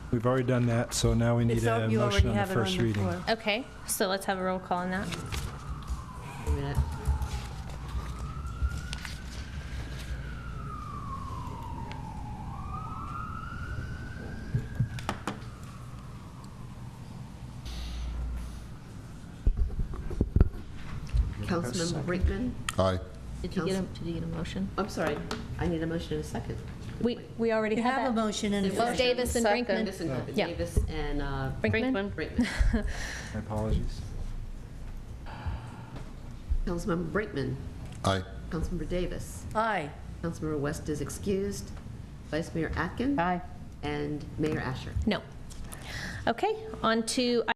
We've already done that, so now we need It's al- a you motion already on the have it on first the reading. floor. Okay, so let's have a roll call on that. a minute. Councilmember Brinkman? Aye. Did you get a- did you get a motion? I'm sorry, I need a motion in a second. We, we already You had have a that. motion in the It Well, was floor. Davis and Second. Brinkman. Davis and Yeah. Davis and uh, Brinkman? Brinkman. My apologies. Councilmember Brinkman, Aye. Councilmember Davis, Aye. Councilmember West is excused, Uh. Vice Mayor Atkin. Aye. And Mayor Asher. No. Okay, on to